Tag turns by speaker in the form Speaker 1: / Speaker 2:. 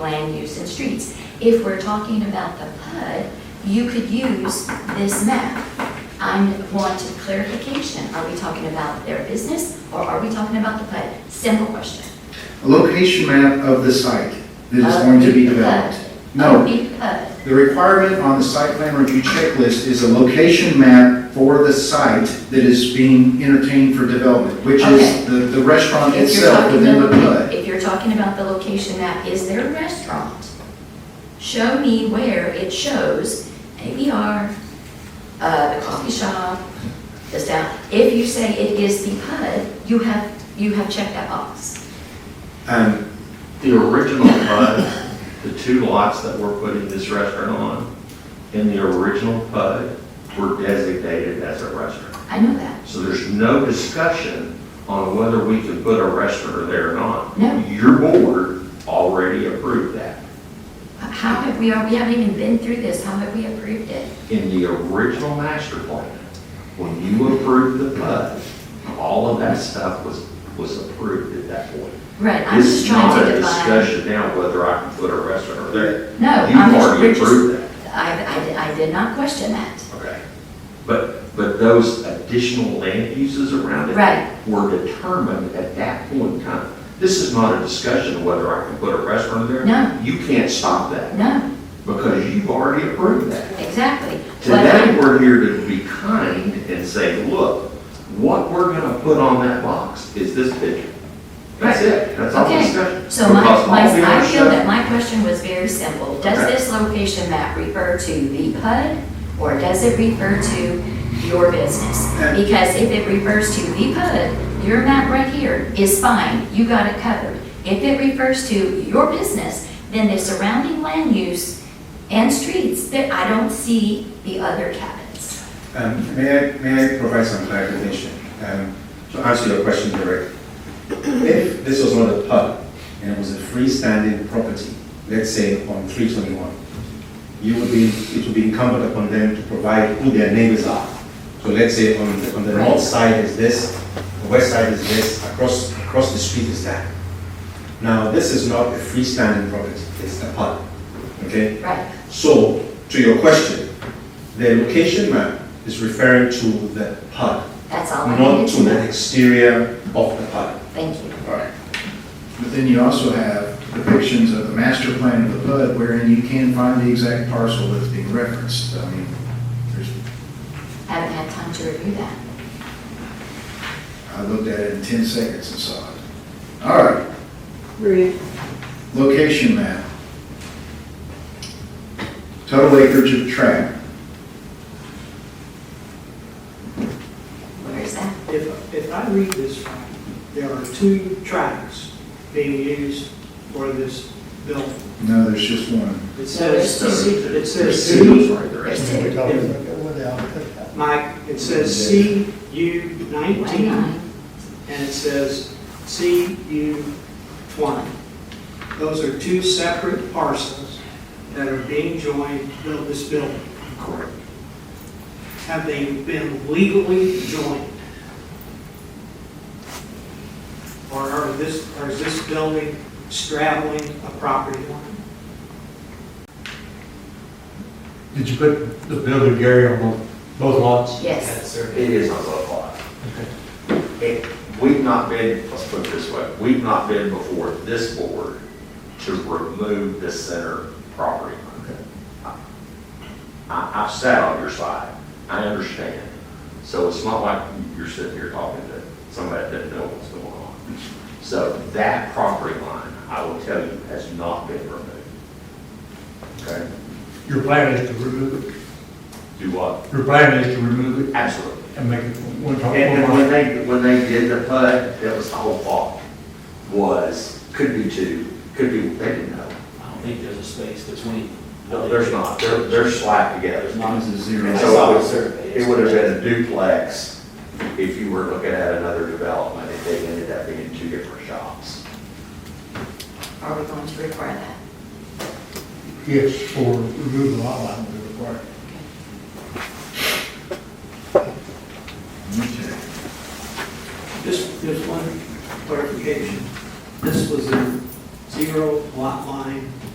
Speaker 1: land use and streets. If we're talking about the PUD, you could use this map. I want clarification. Are we talking about their business or are we talking about the PUD? Simple question.
Speaker 2: A location map of the site that is going to be developed.
Speaker 1: Of
Speaker 2: No,
Speaker 1: the PUD.
Speaker 2: the requirement on the site plan review checklist is a location map for the site that is being entertained for development, which
Speaker 1: Okay.
Speaker 2: is the the restaurant
Speaker 1: If you're
Speaker 2: itself
Speaker 1: talking
Speaker 2: within the
Speaker 1: about-
Speaker 2: PUD.
Speaker 1: If you're talking about the location map, is there a restaurant? Show me where it shows ABR, uh, the coffee shop, the sound. If you say it is the PUD, you have, you have checked that box.
Speaker 2: Um,
Speaker 3: The original PUD, the two lots that we're putting this restaurant on, in the original PUD were designated as a restaurant.
Speaker 1: I know that.
Speaker 3: So there's no discussion on whether we could put a restaurant there or not.
Speaker 1: No.
Speaker 3: Your board already approved that.
Speaker 1: How have we, we haven't even been through this, how have we approved it?
Speaker 3: In the original master plan, when you approved the PUD, all of that stuff was, was approved at that point.
Speaker 1: Right, I'm
Speaker 3: This
Speaker 1: just
Speaker 3: is
Speaker 1: trying
Speaker 3: not
Speaker 1: to
Speaker 3: a
Speaker 1: define.
Speaker 3: discussion now whether I can put a restaurant there.
Speaker 1: No,
Speaker 3: You've
Speaker 1: I'm just,
Speaker 3: already
Speaker 1: we're just,
Speaker 3: approved that.
Speaker 1: I, I, I did not question that.
Speaker 3: Okay. But, but those additional land uses around it.
Speaker 1: Right.
Speaker 3: Were determined at that point in time. This is not a discussion of whether I can put a restaurant there.
Speaker 1: No.
Speaker 3: You can't stop that
Speaker 1: No,
Speaker 3: because you've already approved that.
Speaker 1: exactly. What I'm-
Speaker 3: Today, we're here to be kind and say, look, what we're going to put on that box is this picture. That's
Speaker 1: Right.
Speaker 3: it. That's all the
Speaker 1: Okay,
Speaker 3: discussion.
Speaker 1: so my,
Speaker 3: Because all
Speaker 1: my,
Speaker 3: the other
Speaker 1: I feel
Speaker 3: stuff-
Speaker 1: that my question was very simple. Does
Speaker 3: Okay.
Speaker 1: this location map refer to the PUD or does it refer to your business?
Speaker 2: Yeah.
Speaker 1: Because if it refers to the PUD, your map right here is fine, you got it covered. If it refers to your business, then the surrounding land use and streets, that I don't see the other cabins.
Speaker 4: Um, May I, may I provide some clarification? Um, To answer your question directly, if this was not a pub and it was a freestanding property, let's say on 321, you would be, it would be incumbent upon them to provide who their neighbors are. So let's say on, the- on the
Speaker 1: Right.
Speaker 4: north side is this, the west side is this, across, across the street is that. Now, this is not a freestanding property, it's a pub, okay?
Speaker 1: Right,
Speaker 4: So, to your question, the location map is referring to the PUD,
Speaker 1: that's all I
Speaker 4: not
Speaker 1: needed
Speaker 4: to
Speaker 1: to
Speaker 4: the
Speaker 1: know.
Speaker 4: exterior of the PUD.
Speaker 1: Thank you.
Speaker 2: But then you also have depictions of the master plan of the PUD wherein you can find the exact parcel that's being referenced. I mean, there's,
Speaker 1: Haven't had time to review that.
Speaker 2: I looked at it in 10 seconds and saw it. All right,
Speaker 5: Maria,
Speaker 2: Location map. Total acreage of tract.
Speaker 1: Where is that?
Speaker 6: If, if I read this right, there are two tracks being used for this building.
Speaker 2: No, there's just one.
Speaker 6: It says,
Speaker 1: there's
Speaker 6: C- it says
Speaker 3: It's
Speaker 6: C,
Speaker 3: right there.
Speaker 1: There's
Speaker 7: We're
Speaker 1: two.
Speaker 7: talking about that one now.
Speaker 6: Mike, it says C U
Speaker 1: Why
Speaker 6: nineteen,
Speaker 1: not?
Speaker 6: and it says C U twenty. Those are two separate parcels that are being joined to build this building. Correct. Have they been legally joined? Or are this, or is this building straddling a property line?
Speaker 7: Did you put the building Gary on both, both lots?
Speaker 1: Yes.
Speaker 3: It is on both lots. It- We've not been, let's put it this way, we've not been before this board to remove the center property line. I, I've sat on your side, I understand. So it's not like you're sitting here talking to somebody that doesn't know what's going on. So that property line, I will tell you, has not been removed. Okay?
Speaker 7: Your plan is to remove it,
Speaker 3: Do what?
Speaker 7: your plan is to remove it
Speaker 3: Absolutely.
Speaker 7: and make it one top,
Speaker 3: And and
Speaker 7: one
Speaker 3: when
Speaker 7: lot.
Speaker 3: they, when they did the PUD, that was the whole thought, was, could be two, could be, they didn't know.
Speaker 8: I don't think there's a space between.
Speaker 3: No, there's not, they're, they're slapped together.
Speaker 8: There's not.
Speaker 2: This is
Speaker 8: I
Speaker 3: And
Speaker 2: zero.
Speaker 8: saw
Speaker 3: so
Speaker 8: the survey.
Speaker 3: It would have been a duplex if you were looking at another development, if they ended up being two different shops.
Speaker 1: Are we going to require that?
Speaker 7: Yes, for remove the lot line would require.
Speaker 2: Okay.
Speaker 6: Just, just one clarification. This was a zero lot line